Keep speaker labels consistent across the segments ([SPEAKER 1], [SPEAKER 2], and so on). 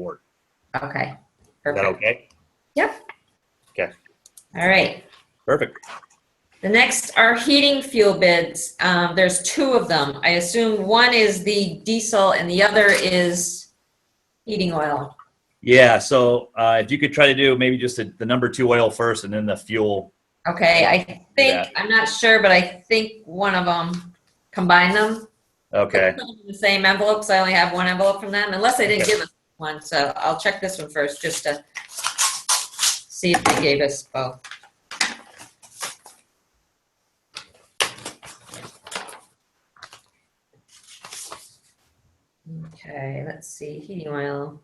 [SPEAKER 1] board.
[SPEAKER 2] Okay.
[SPEAKER 1] Is that
[SPEAKER 2] Perfect.
[SPEAKER 1] okay?
[SPEAKER 2] Yep.
[SPEAKER 1] Okay.
[SPEAKER 2] All right.
[SPEAKER 1] Perfect.
[SPEAKER 2] The next are heating fuel bids. Um, there's two of them. I assume one is the diesel and the other is heating oil.
[SPEAKER 1] Yeah, so uh, if you could try to do maybe just the, the number two oil first and then the fuel.
[SPEAKER 2] Okay, I
[SPEAKER 1] Yeah.
[SPEAKER 2] think, I'm not sure, but I think one of them, combine them.
[SPEAKER 1] Okay,
[SPEAKER 2] Put them in The same envelopes. I only have one envelope from them, unless they didn't
[SPEAKER 1] Okay.
[SPEAKER 2] give us one, so I'll check this one first, just to see if they gave us both. Okay, let's see, heating oil.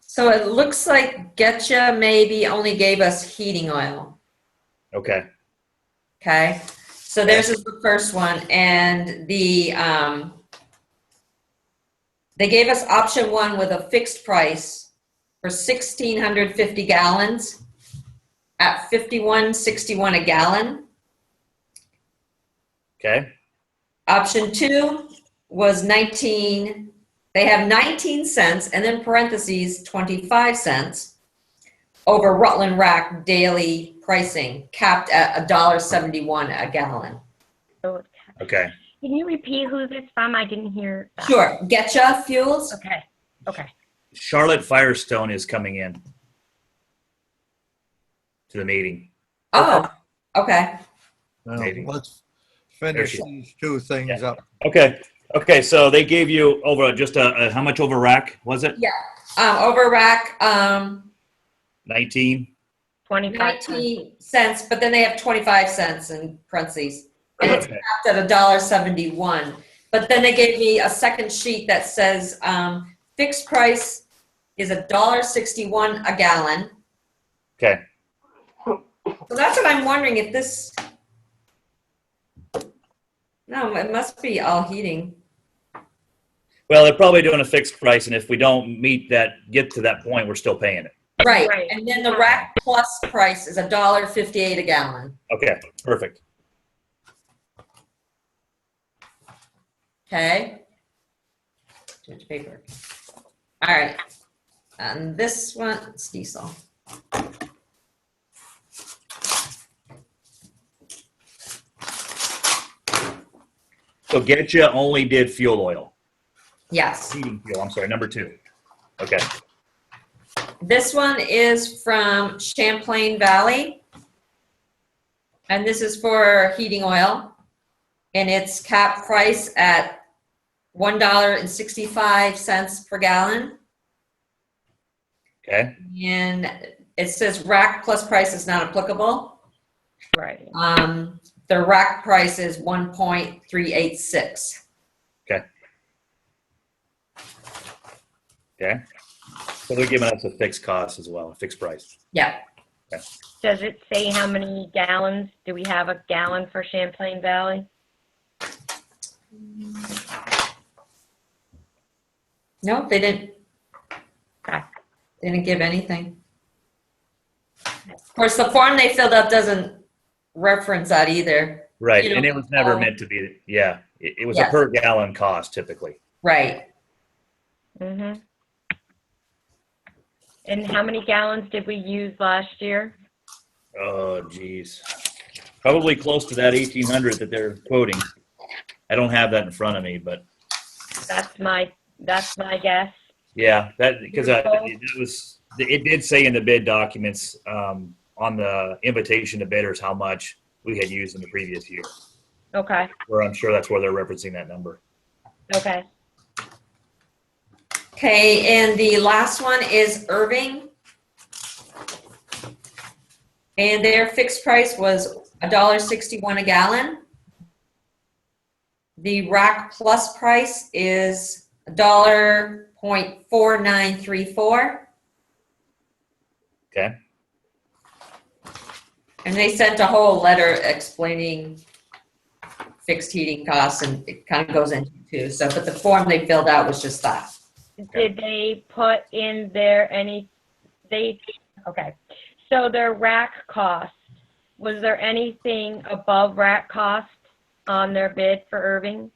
[SPEAKER 2] So it looks like Getcha maybe only gave us heating oil.
[SPEAKER 1] okay,
[SPEAKER 2] Okay, so this is the first one, and the, um, they gave us option one with a fixed price for sixteen hundred fifty gallons at fifty-one sixty-one a gallon.
[SPEAKER 1] okay,
[SPEAKER 2] Option two was nineteen, they have nineteen cents, and then parentheses, twenty-five cents over Rutland Rack daily pricing, capped at a dollar seventy-one a gallon.
[SPEAKER 3] Oh,
[SPEAKER 1] okay.
[SPEAKER 3] Can you repeat who this from? I didn't hear. that.
[SPEAKER 2] Sure, Getcha Fuels.
[SPEAKER 3] Okay, okay.
[SPEAKER 1] Charlotte Firestone is coming in to the meeting.
[SPEAKER 2] Oh, okay.
[SPEAKER 4] Well,
[SPEAKER 1] Maybe.
[SPEAKER 4] let's finish
[SPEAKER 1] she-
[SPEAKER 4] these two things up.
[SPEAKER 1] Okay, okay, so they gave you over just a, a- how much over rack was it?
[SPEAKER 2] Um, over rack, um,
[SPEAKER 1] 19?
[SPEAKER 3] 25.
[SPEAKER 2] nineteen cents, but then they have twenty-five cents in parentheses. And it's
[SPEAKER 1] Okay.
[SPEAKER 2] capped at a dollar seventy-one. But then they gave me a second sheet that says, um, fixed price is a dollar sixty-one a gallon.
[SPEAKER 1] Okay.
[SPEAKER 2] So that's what I'm wondering if this. No, it must be all heating.
[SPEAKER 1] Well, they're probably doing a fixed price, and if we don't meet that, get to that point, we're still paying it.
[SPEAKER 2] Right,
[SPEAKER 3] Right.
[SPEAKER 2] and then the rack plus price is a dollar fifty-eight a gallon.
[SPEAKER 1] Okay, perfect.
[SPEAKER 2] Okay. Too much paper. All right. And this one, it's diesel.
[SPEAKER 1] So Getcha only did fuel oil,
[SPEAKER 2] Yes.
[SPEAKER 1] heating fuel, I'm sorry, number two. Okay,
[SPEAKER 2] This one is from Champlain Valley. And this is for heating oil. And it's cap price at one dollar and sixty-five cents per gallon.
[SPEAKER 1] okay,
[SPEAKER 2] And it says rack plus price is not applicable.
[SPEAKER 3] Right.
[SPEAKER 2] Um, the rack price is one point three eight six.
[SPEAKER 1] Okay. Okay. so they're giving us a fixed cost as well, a fixed price.
[SPEAKER 2] Yeah,
[SPEAKER 3] Does it say how many gallons? Do we have a gallon for Champlain Valley?
[SPEAKER 2] no, they didn't,
[SPEAKER 3] Okay.
[SPEAKER 2] they didn't give anything. Of course, the form they filled out doesn't reference that either,
[SPEAKER 1] Right,
[SPEAKER 2] You know,
[SPEAKER 1] and it was never
[SPEAKER 2] uh,
[SPEAKER 1] meant to be, yeah, it, it was a
[SPEAKER 2] Yes.
[SPEAKER 1] per gallon cost typically.
[SPEAKER 2] right?
[SPEAKER 3] Mm-hmm. And how many gallons did we use last year?
[SPEAKER 1] Oh, geez. Probably close to that eighteen hundred that they're quoting. I don't have that in front of me, but
[SPEAKER 3] That's my, that's my guess.
[SPEAKER 1] yeah, that, because I,
[SPEAKER 3] Beautiful.
[SPEAKER 1] it was, it did say in the bid documents, um, on the invitation to bidders how much we had used in the previous year,
[SPEAKER 3] Okay,
[SPEAKER 1] where I'm sure that's where they're referencing that number.
[SPEAKER 3] okay.
[SPEAKER 2] Okay, and the last one is Irving. And their fixed price was a dollar sixty-one a gallon. The rack plus price is a dollar point four nine three four.
[SPEAKER 1] Okay.
[SPEAKER 2] And they sent a whole letter explaining fixed heating costs and it kind of goes into two. So, but the form they filled out was just that.
[SPEAKER 3] Did they put in there any, they, okay. So their rack cost, was there anything above rack cost on their bid for Irving?